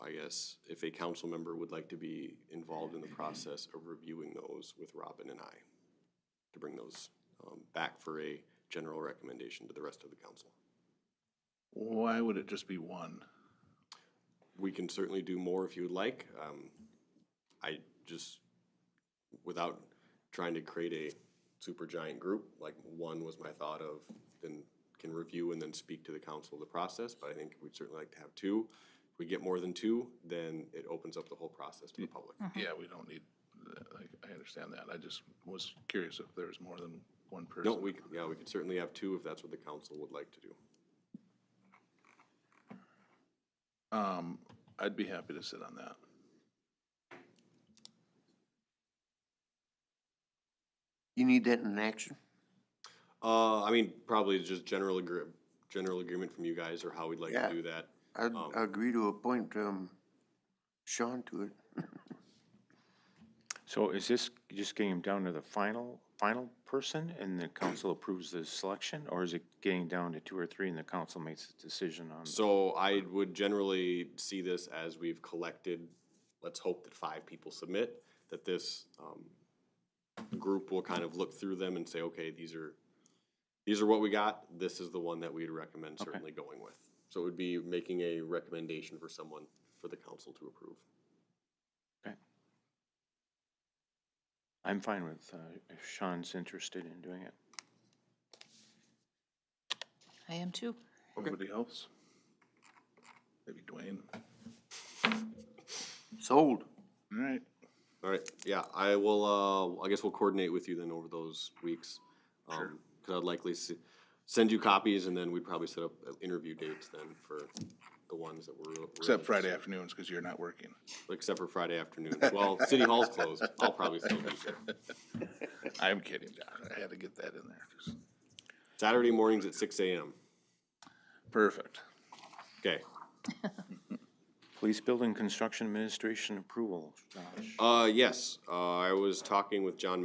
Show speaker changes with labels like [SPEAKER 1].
[SPEAKER 1] I guess, if a council member would like to be involved in the process of reviewing those with Robin and I, to bring those um, back for a general recommendation to the rest of the council.
[SPEAKER 2] Why would it just be one?
[SPEAKER 1] We can certainly do more if you would like. Um, I just, without trying to create a super giant group, like one was my thought of, then can review and then speak to the council of the process, but I think we'd certainly like to have two. If we get more than two, then it opens up the whole process to the public.
[SPEAKER 2] Yeah, we don't need, I, I understand that. I just was curious if there was more than one person.
[SPEAKER 1] No, we, c- yeah, we could certainly have two if that's what the council would like to do.
[SPEAKER 2] Um, I'd be happy to sit on that.
[SPEAKER 3] You need that in action?
[SPEAKER 1] Uh, I mean, probably just general agree, general agreement from you guys or how we'd like to
[SPEAKER 3] Yeah.
[SPEAKER 1] do that.
[SPEAKER 3] I'd
[SPEAKER 1] Um,
[SPEAKER 3] agree to appoint, um, Sean to it.
[SPEAKER 4] So is this just getting down to the final, final person and the council approves the selection? Or is it getting down to two or three and the council makes a decision on?
[SPEAKER 1] So I would generally see this as we've collected, let's hope that five people submit, that this, um, group will kind of look through them and say, okay, these are, these are what we got, this is the one that we'd recommend certainly going with. So it would be making a recommendation for someone for the council to approve.
[SPEAKER 4] I'm fine with, uh, if Sean's interested in doing it.
[SPEAKER 5] I am too.
[SPEAKER 2] Anybody else? Maybe Dwayne.
[SPEAKER 3] Sold.
[SPEAKER 2] All right.
[SPEAKER 1] All right, yeah, I will, uh, I guess we'll coordinate with you then over those weeks. Um, cause I'd likely s send you copies and then we'd probably set up uh, interview dates then for the ones that were.
[SPEAKER 2] Except Friday afternoons, because you're not working.
[SPEAKER 1] Except for Friday afternoon. Well, city hall's closed. I'll probably still be here.
[SPEAKER 2] I'm kidding, John. I had to get that in there.
[SPEAKER 1] Saturday mornings at six AM.
[SPEAKER 2] Perfect.
[SPEAKER 1] Okay.
[SPEAKER 4] Police Building Construction Administration approval, Josh.
[SPEAKER 1] Uh, yes, uh, I was talking with John